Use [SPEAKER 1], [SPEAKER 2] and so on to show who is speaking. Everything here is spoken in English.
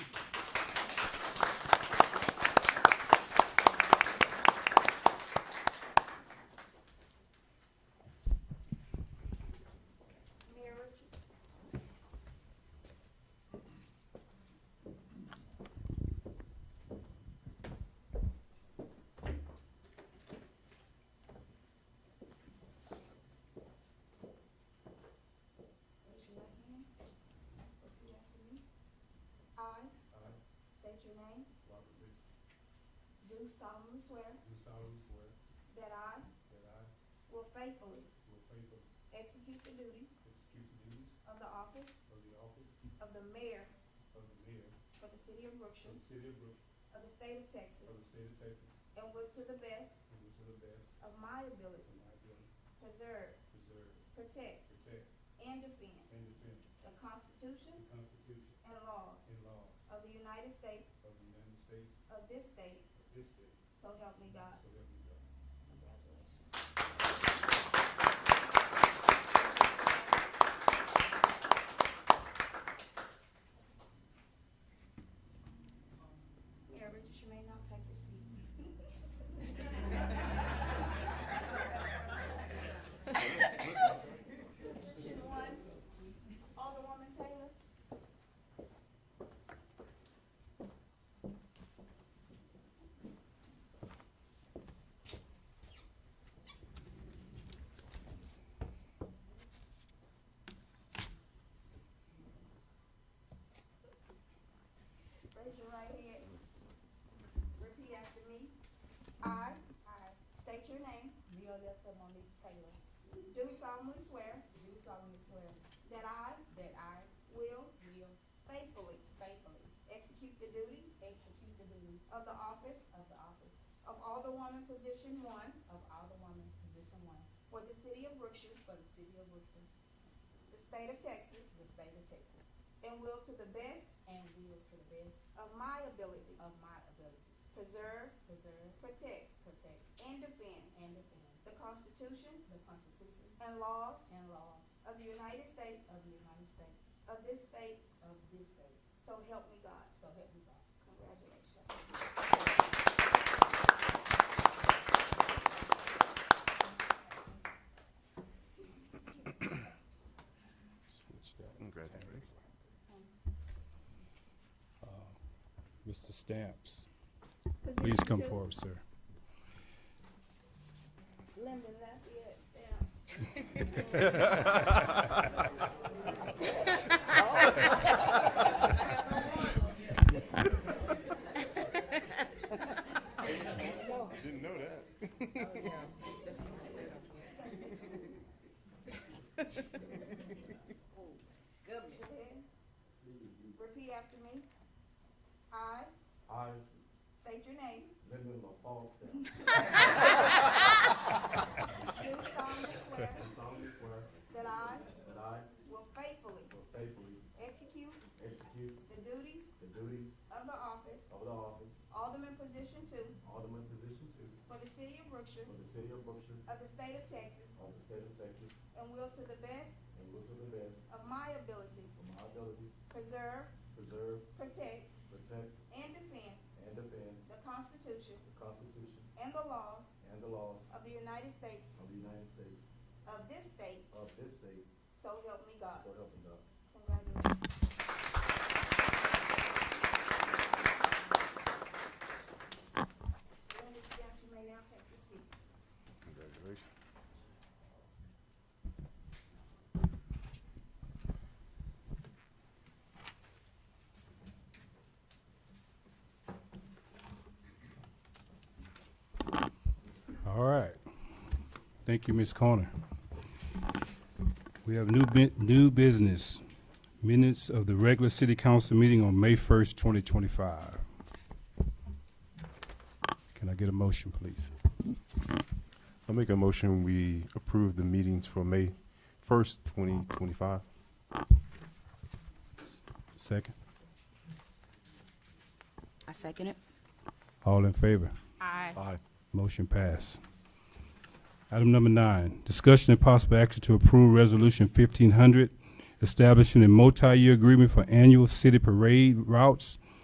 [SPEAKER 1] your name,
[SPEAKER 2] Robert Ritchie,
[SPEAKER 1] do solemnly swear
[SPEAKER 2] do solemnly swear
[SPEAKER 1] that I
[SPEAKER 2] that I
[SPEAKER 1] will faithfully
[SPEAKER 2] will faithfully
[SPEAKER 1] execute the duties
[SPEAKER 2] execute the duties
[SPEAKER 1] of the office
[SPEAKER 2] of the office
[SPEAKER 1] of the mayor
[SPEAKER 2] of the mayor
[SPEAKER 1] for the city of
[SPEAKER 2] of
[SPEAKER 1] Brookshire,
[SPEAKER 2] the city of Brook,
[SPEAKER 1] of the state of
[SPEAKER 2] of the
[SPEAKER 1] Texas,
[SPEAKER 2] state of Texas,
[SPEAKER 1] and will to the best
[SPEAKER 2] and will to the best
[SPEAKER 1] of my
[SPEAKER 2] of
[SPEAKER 1] ability
[SPEAKER 2] my ability
[SPEAKER 1] preserve,
[SPEAKER 2] preserve,
[SPEAKER 1] protect,
[SPEAKER 2] protect,
[SPEAKER 1] and defend
[SPEAKER 2] and defend
[SPEAKER 1] the
[SPEAKER 2] the
[SPEAKER 1] Constitution
[SPEAKER 2] Constitution
[SPEAKER 1] and laws
[SPEAKER 2] and laws
[SPEAKER 1] of the United States,
[SPEAKER 2] of the United States,
[SPEAKER 1] of this state,
[SPEAKER 2] of this state,
[SPEAKER 1] so help me God.
[SPEAKER 2] so help me God.
[SPEAKER 1] Congratulations. Mayor Richards, you may now take your seat. Position one, Alderwoman Taylor. Raise your right hand. Repeat after me. I. I. State your name.
[SPEAKER 3] Violetta Monique Taylor,
[SPEAKER 1] Do solemnly swear
[SPEAKER 3] do solemnly swear
[SPEAKER 1] that I
[SPEAKER 3] that I
[SPEAKER 1] will
[SPEAKER 3] will
[SPEAKER 1] faithfully
[SPEAKER 3] faithfully
[SPEAKER 1] execute the duties
[SPEAKER 3] execute the duties
[SPEAKER 1] of the office
[SPEAKER 3] of the office
[SPEAKER 1] of Alderwoman, position one,
[SPEAKER 3] of Alderwoman, Position One,
[SPEAKER 1] for the city of Brookshire,
[SPEAKER 3] for the city of Brewster,
[SPEAKER 1] the state of Texas,
[SPEAKER 3] the state of Texas,
[SPEAKER 1] and will to the best
[SPEAKER 3] and will to the best
[SPEAKER 1] of my ability
[SPEAKER 3] of my ability
[SPEAKER 1] preserve,
[SPEAKER 3] preserve,
[SPEAKER 1] protect,
[SPEAKER 3] protect,
[SPEAKER 1] and defend
[SPEAKER 3] and defend
[SPEAKER 1] the Constitution
[SPEAKER 3] the Constitution
[SPEAKER 1] and laws
[SPEAKER 3] and laws
[SPEAKER 1] of the United States,
[SPEAKER 3] of the United States,
[SPEAKER 1] of this state,
[SPEAKER 3] of this state,
[SPEAKER 1] so help me God.
[SPEAKER 3] so help me God.
[SPEAKER 1] Congratulations.
[SPEAKER 4] Congratulations.
[SPEAKER 5] Mr. Uh, Stamps, please come forward, sir.
[SPEAKER 1] Lyndon Lafayette Stamps.
[SPEAKER 4] Didn't know that.
[SPEAKER 1] Go ahead. Repeat after me. I
[SPEAKER 2] I,
[SPEAKER 1] state your name.
[SPEAKER 2] Lyndon LaFawn Stamps,
[SPEAKER 1] Do solemnly swear
[SPEAKER 2] do solemnly swear
[SPEAKER 1] that I
[SPEAKER 2] that I
[SPEAKER 1] will faithfully
[SPEAKER 2] will faithfully
[SPEAKER 1] execute
[SPEAKER 2] execute
[SPEAKER 1] the duties
[SPEAKER 2] the duties
[SPEAKER 1] of the office,
[SPEAKER 2] of the office,
[SPEAKER 1] Alderman Position Two,
[SPEAKER 2] Alderman Position Two,
[SPEAKER 1] for the city of Brookshire,
[SPEAKER 2] for the city of Brookshire,
[SPEAKER 1] of the state of Texas,
[SPEAKER 2] of the state of Texas,
[SPEAKER 1] and will to the best
[SPEAKER 2] and will to the best
[SPEAKER 1] of my ability
[SPEAKER 2] of my ability
[SPEAKER 1] preserve,
[SPEAKER 2] preserve,
[SPEAKER 1] protect,
[SPEAKER 2] protect,
[SPEAKER 1] and defend
[SPEAKER 2] and defend
[SPEAKER 1] the Constitution
[SPEAKER 2] the Constitution
[SPEAKER 1] and the laws
[SPEAKER 2] and the laws
[SPEAKER 1] of the United States,
[SPEAKER 2] of the United States,
[SPEAKER 1] of this state,
[SPEAKER 2] of this state,
[SPEAKER 1] so help me God.
[SPEAKER 2] so help me God.
[SPEAKER 1] Congratulations. Linda Stamps, you may now take your seat.
[SPEAKER 4] Congratulations.
[SPEAKER 5] All right. Thank you, Ms. Corner. We have new bu- new business, minutes of the regular city council meeting on May first, twenty twenty-five. Can I get a motion, please?
[SPEAKER 4] I'll make a motion, we approve the meetings for May first, twenty twenty-five.
[SPEAKER 5] Second?
[SPEAKER 6] I second it.
[SPEAKER 5] All in favor?
[SPEAKER 3] Aye.
[SPEAKER 4] Aye.
[SPEAKER 5] Motion pass. Item number nine, discussion and possible action to approve resolution fifteen hundred, establishing a multi-year agreement for annual city parade routes